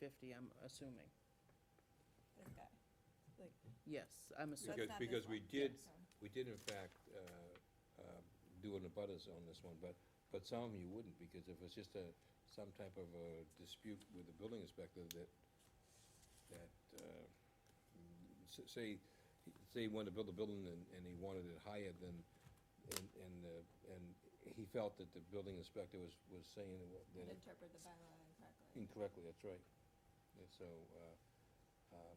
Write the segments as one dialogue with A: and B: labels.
A: fifty, I'm assuming.
B: This guy.
A: Yes, I'm assuming.
B: That's not this
C: Because, because we
B: one.
C: did,
B: So-
C: we did in fact, uh, uh, do an abutters on this one, but, but some of you wouldn't, because if it's just a, some type of a dispute with the building inspector that, that, uh, s- say, say he wanted to build a building and, and he wanted it higher than, and, and, uh, and he felt that the building inspector was, was saying that it
B: Interpret the bylaw incorrectly.
C: Incorrectly, that's right. And so, uh, um,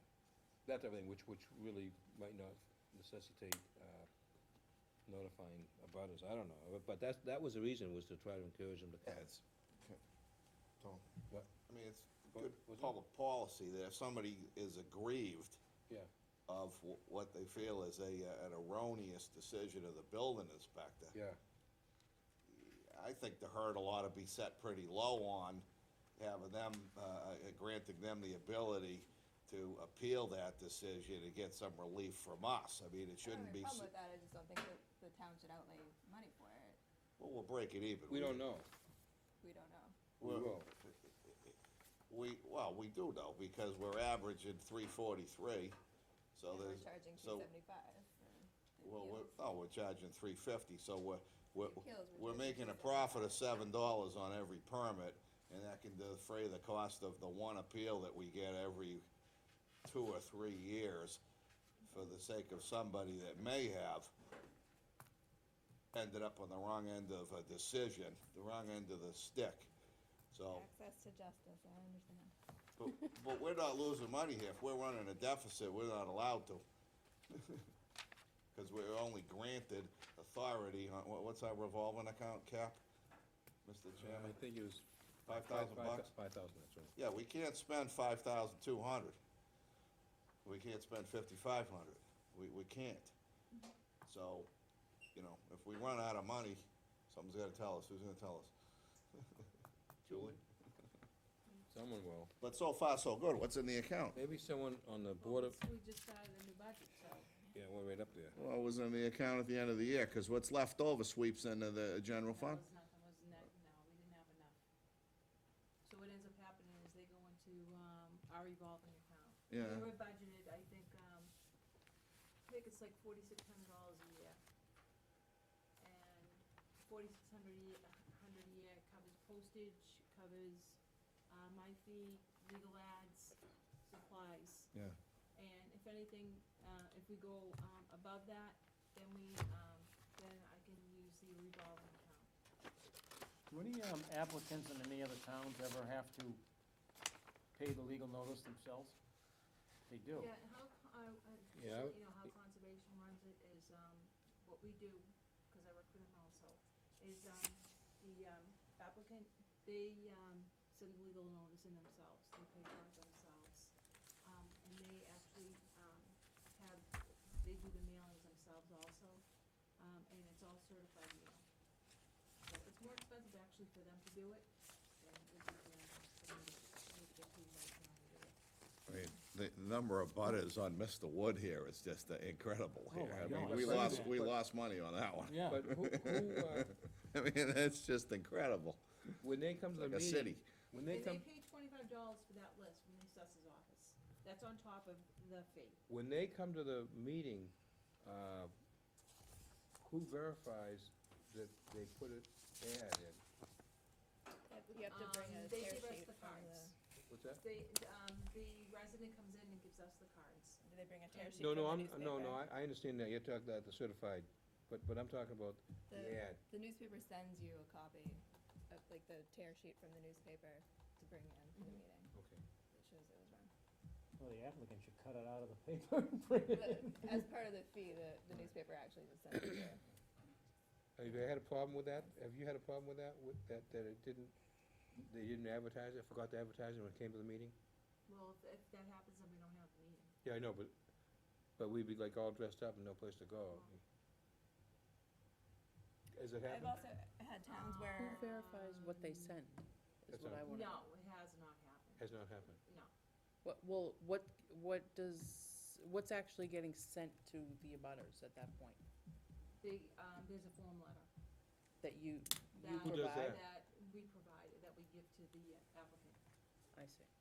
C: that type of thing, which, which really might not necessitate, uh, notifying abutters, I don't know. But- But that's, that was the reason, was to try to encourage them to
D: Yeah,
C: come.
D: it's, okay, Tom.
C: What?
D: I mean, it's
C: What
D: good
C: was it?
D: public policy that if somebody is aggrieved
C: Yeah,
D: of wh- what they feel is a, uh, an erroneous decision of the building inspector.
C: yeah,
D: I think the hurdle ought to be set pretty low on having them, uh, uh, granting them the ability to appeal that decision and get some relief from us. I mean, it shouldn't be,
B: The
D: s-
B: problem with that, I just don't think that the town should outlay money for it.
D: well, we'll break it even.
C: we don't know.
B: We don't know.
C: We
D: Well-
C: will.
D: We, well, we do know, because we're averaging three forty-three, so
B: And
D: there's,
B: We're charging two
D: so-
B: seventy-five.
D: well, we're, oh, we're charging three fifty, so we're, we're,
B: Appeals, we're
D: we're making a
B: charging
D: profit of seven dollars on every permit, and that can defray the cost of the one appeal that we get every two or three years for the sake of somebody that may have ended up on the wrong end of a decision, the wrong end of the stick, so.
B: Access to justice, I understand.
D: But, but we're not losing money here. If we're running a deficit, we're not allowed to. Cause we're only granted authority on, what, what's our revolving account cap, Mr. Chairman?
C: I think it was.
D: uh, Five thousand bucks?
C: Five thousand, that's right.
D: Yeah, we can't spend five thousand two hundred. We can't spend fifty-five hundred. We, we can't. So, you know, if we run out of money, someone's gotta tell us. Who's gonna tell us? Julie?
C: Someone will.
D: But so far, so good. What's in the account?
C: Maybe someone on the board of, Oh,
E: We just started a new budget, so.
C: yeah, we're right up there.
D: Well, it was in the account at the end of the year, because what's left over sweeps into the general fund.
E: That was nothing, was net, no, we didn't have enough. So what ends up happening is they go into, um, our revolving account.
D: Yeah,
E: We were budgeted, I think, um, I think it's like forty-six hundred dollars a year. And forty-six hundred a year, a hundred a year covers postage, covers, uh, my fee, legal ads, supplies.
D: yeah.
E: And if anything, uh, if we go, um, above that, then we, um, then I can use the revolving account.
F: Do any um, applicants in any other towns ever have to pay the legal notice themselves? They do.
E: Yeah, how, co- uh, I, I,
C: Yeah.
E: you know, how conservation runs it is, um, what we do, cause I work for them also, is, um, the, um, applicant, they, um, send legal notice in themselves, they pay for it themselves. Um, and they actually, um, have, they do the mailings themselves also, um, and it's all certified mail. So it's more expensive actually for them to do it than it would be for them for me to- for me to get to right now and do it.
D: I mean, the number of butters on Mr. Wood here is just uh, incredible
F: Oh,
D: here.
F: my
D: I mean,
F: God.
D: we
C: But-
D: lost, we
C: but-
D: lost money on that one.
F: Yeah.
C: But who, who, uh,
D: I mean, that's just incredible,
C: when they come to the
D: like
C: meeting.
D: a city.
C: When they come,
E: And they pay twenty-five dollars for that list from the assessor's office. That's on top of the fee.
C: when they come to the meeting, uh, who verifies that they put an ad in?
B: You have to bring
E: Um,
B: a
E: They
B: tear
E: give us
B: sheet
E: the
B: from
E: cards.
B: the,
C: What's that?
E: They, um, the resident comes in and gives us the cards.
B: do they bring a tear sheet
C: No,
B: from the
C: no, I'm,
B: newspaper?
C: no, no, I, I understand that, you're talking about the certified, but, but I'm talking about the
B: The,
C: ad.
B: the newspaper sends you a copy of, like, the tear sheet from the newspaper to bring in for the meeting.
C: Okay.
B: It shows it was run.
F: Well, the applicant should cut it out of the paper and print it.
B: But as part of the fee, the, the newspaper actually was sent to you.
C: Have you had a problem with that? Have you had a problem with that, with, that, that it didn't, they didn't advertise it, forgot to advertise it when it came to the meeting?
E: Well, if, if that happens, then we don't have the meeting.
C: Yeah, I know, but, but we'd be like all dressed up and no place to go. Has it
B: Uh-huh. I've
C: happened?
B: also had towns
A: Who
B: where,
A: verifies what they send? Is
C: That's
A: what
C: all.
A: I wanna.
E: No, it has not happened,
C: Has not happened.
E: no.
A: What, well, what, what does, what's actually getting sent to the abutters at that point?
E: They, um, there's a form letter
A: That you, you
E: that,
C: Who does
A: provide?
C: that?
E: that we provide, that we give to the applicant.
A: I see.